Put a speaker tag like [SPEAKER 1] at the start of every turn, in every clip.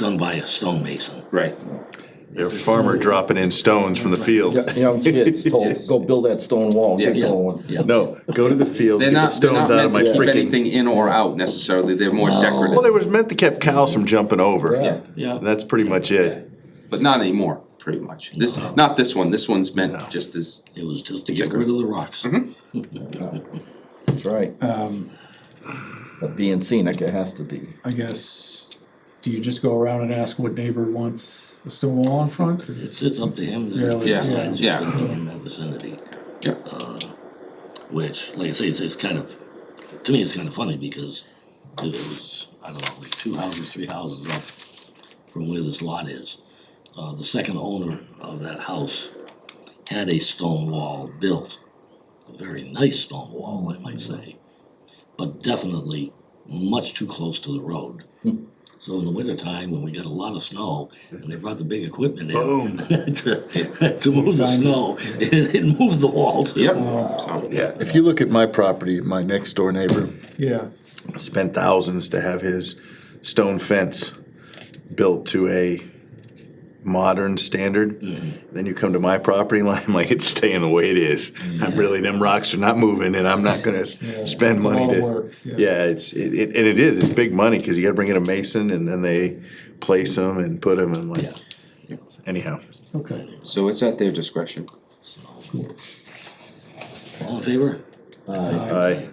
[SPEAKER 1] done by a stonemason.
[SPEAKER 2] Right.
[SPEAKER 3] Your farmer dropping in stones from the field.
[SPEAKER 4] Young kids told, go build that stone wall, get
[SPEAKER 2] Yes.
[SPEAKER 4] going.
[SPEAKER 1] Yeah.
[SPEAKER 3] No, go to the field,
[SPEAKER 2] They're
[SPEAKER 3] get
[SPEAKER 2] not,
[SPEAKER 3] the
[SPEAKER 2] they're not
[SPEAKER 3] stones out
[SPEAKER 2] meant
[SPEAKER 3] of my
[SPEAKER 2] to keep anything
[SPEAKER 3] freaking.
[SPEAKER 2] in or out necessarily, they're more
[SPEAKER 3] Well,
[SPEAKER 2] decorative,
[SPEAKER 3] they was meant to keep cows from jumping
[SPEAKER 4] Yeah.
[SPEAKER 3] over.
[SPEAKER 1] Yeah.
[SPEAKER 3] That's pretty much it.
[SPEAKER 2] but not anymore, pretty much. This, not this one, this one's meant just as,
[SPEAKER 1] It was just to get rid of the rocks.
[SPEAKER 4] That's right.
[SPEAKER 5] Um,
[SPEAKER 4] But being scenic, it has to be.
[SPEAKER 5] I guess, do you just go around and ask what neighbor wants a stone wall in front?
[SPEAKER 1] It's, it's up to him to
[SPEAKER 5] Really?
[SPEAKER 1] decide
[SPEAKER 2] Yeah,
[SPEAKER 1] who's
[SPEAKER 2] yeah.
[SPEAKER 1] gonna be in that vicinity.
[SPEAKER 2] Yep.
[SPEAKER 1] Uh, Which, like I say, it's, it's kind of, to me, it's kind of funny because it was, I don't know, like two houses, three houses up from where this lot is. Uh, the second owner of that house had a stone wall built, a very nice stone wall, I might say, but definitely much too close to the road. So in the wintertime, when we got a lot of snow, and they brought the big equipment in
[SPEAKER 3] Boom.
[SPEAKER 1] to, to move the snow, it, it moved the wall too.
[SPEAKER 2] yep, so,
[SPEAKER 3] Yeah,
[SPEAKER 6] If you look at my property, my next door neighbor
[SPEAKER 5] Yeah,
[SPEAKER 3] spent thousands to have his stone fence built to a modern standard.
[SPEAKER 5] Mm-hmm.
[SPEAKER 3] Then you come to my property line, I'm like it's staying the way it is. I'm really them rocks are not moving, and I'm not gonna spend
[SPEAKER 5] It's a
[SPEAKER 3] money
[SPEAKER 5] lot of
[SPEAKER 3] to.
[SPEAKER 5] work, yeah.
[SPEAKER 3] yeah. it's it, it and it is it's big money because you got to bring in a mason and then they place them and put them and like.
[SPEAKER 1] Yeah.
[SPEAKER 3] Anyhow,
[SPEAKER 5] okay.
[SPEAKER 2] so it's at their discretion.
[SPEAKER 1] All in favor?
[SPEAKER 3] I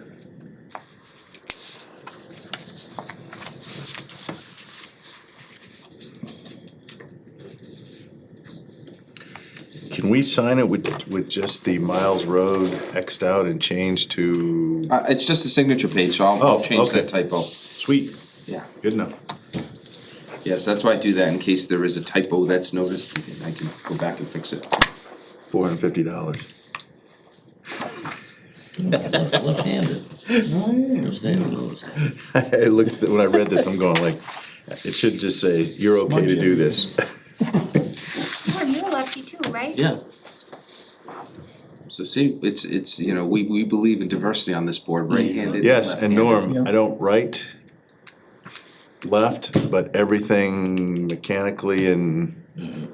[SPEAKER 3] can we sign it with with just the Miles Road xed out and changed to
[SPEAKER 2] Uh, it's just a signature page, so I'll, I'll
[SPEAKER 3] Oh,
[SPEAKER 2] change
[SPEAKER 3] okay.
[SPEAKER 2] that typo,
[SPEAKER 3] sweet?
[SPEAKER 2] yeah.
[SPEAKER 3] Good enough.
[SPEAKER 2] Yes, that's why I do that, in case there is a typo that's noticed, and I can go back and fix it.
[SPEAKER 3] Four hundred fifty dollars.
[SPEAKER 1] Left-handed. Just didn't notice that.
[SPEAKER 3] I looked at, when I read this. I'm going like, it should just say you're okay to do this.
[SPEAKER 7] Well, you're lucky too, right?
[SPEAKER 1] Yeah,
[SPEAKER 2] So see, it's, it's, you know, we, we believe in diversity on this board, right-handed and
[SPEAKER 3] Yes, and
[SPEAKER 2] left-handed.
[SPEAKER 3] Norm,
[SPEAKER 5] Yeah.
[SPEAKER 3] I don't write left, but everything mechanically and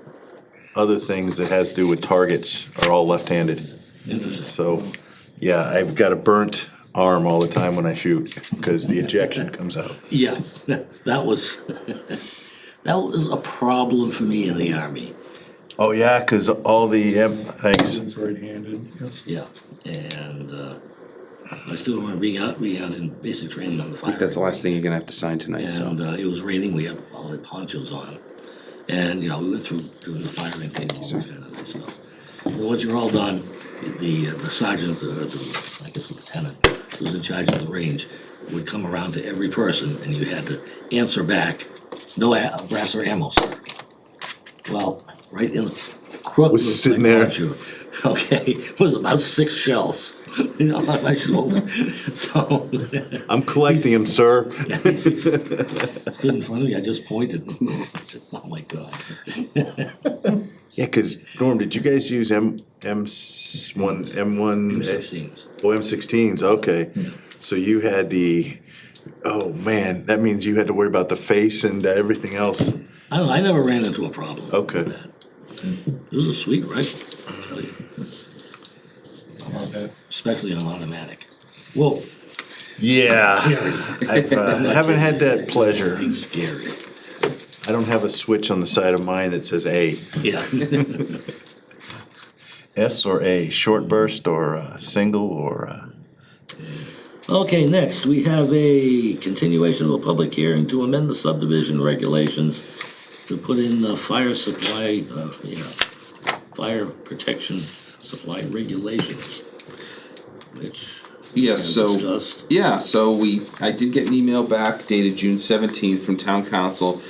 [SPEAKER 3] other things that has to do with targets are all left-handed.
[SPEAKER 1] interesting.
[SPEAKER 3] So, yeah, I've got a burnt arm all the time when I shoot, because the ejection comes out.
[SPEAKER 1] Yeah, that was, that was a problem for me in the army.
[SPEAKER 3] Oh, yeah, because all the, em- thanks,
[SPEAKER 5] It's right-handed. yeah.
[SPEAKER 1] Yeah, and, uh, I still remember being out, we had in basic training on the fire.
[SPEAKER 2] That's the last thing you're gonna have to sign tonight, so,
[SPEAKER 1] And uh, it was raining. We had all the ponchos on, and you know we went through doing the firing thing, all this kind of nice stuff. So once you're all done, the uh, the sergeant, the, the I guess lieutenant, who was in charge of the range, would come around to every person, and you had to answer back, no a- brass or ammo, sir. Well, right in the crook
[SPEAKER 3] Was
[SPEAKER 1] of
[SPEAKER 3] sitting
[SPEAKER 1] my
[SPEAKER 3] there.
[SPEAKER 1] poncho, Okay, was about six shells, you know, on my shoulder. So
[SPEAKER 3] I'm collecting them, sir.
[SPEAKER 1] Stood in front of me, I just pointed. I said, oh my God.
[SPEAKER 3] Yeah, because, Norm, did you guys use M, M s- one, M one?
[SPEAKER 1] M16s.
[SPEAKER 3] Oh, M16s, okay. So you had the, oh man, that means you had to worry about the face and everything else.
[SPEAKER 1] I don't know, I never ran into a problem. with
[SPEAKER 3] Okay.
[SPEAKER 1] that. It was a sweet rifle, I tell you,
[SPEAKER 5] Yeah,
[SPEAKER 1] especially on automatic. Whoa,
[SPEAKER 3] Yeah. I've, uh, haven't had that pleasure.
[SPEAKER 1] it's scary.
[SPEAKER 3] I don't have a switch on the side of mine that says A.
[SPEAKER 1] Yeah,
[SPEAKER 3] S or A, short burst or uh, single or. Uh,
[SPEAKER 1] okay, next, we have a continuation of a public hearing to amend the subdivision regulations to put in the fire supply, uh, yeah, fire protection supply regulations, which
[SPEAKER 2] yeah, so.
[SPEAKER 1] discussed.
[SPEAKER 2] Yeah, so we, I did get an email back dated June seventeenth from town council.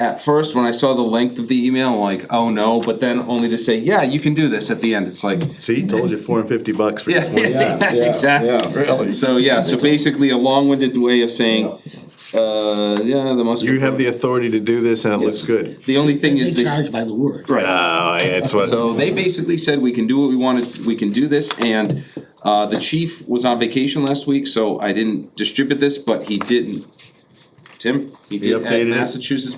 [SPEAKER 2] At first, when I saw the length of the email, I'm like, oh no, but then only to say, yeah, you can do this at the end, it's like,
[SPEAKER 3] see, told you 450 bucks for your
[SPEAKER 2] yeah,
[SPEAKER 3] 20.
[SPEAKER 2] yeah,
[SPEAKER 4] yeah,
[SPEAKER 2] exactly.
[SPEAKER 4] really.
[SPEAKER 2] So, yeah, so basically a long-winded way of saying, uh, yeah, the Musker.
[SPEAKER 3] You have the authority to do this and it looks good.
[SPEAKER 2] The only thing is
[SPEAKER 1] They
[SPEAKER 2] they,
[SPEAKER 1] charge by the word.
[SPEAKER 2] right,
[SPEAKER 3] Oh, yeah, that's what.
[SPEAKER 2] so they basically said, we can do what we wanted, we can do this, and, uh, the chief was on vacation last week, so I didn't distribute this, but he didn't. Tim, he did add
[SPEAKER 3] updated it.
[SPEAKER 2] Massachusetts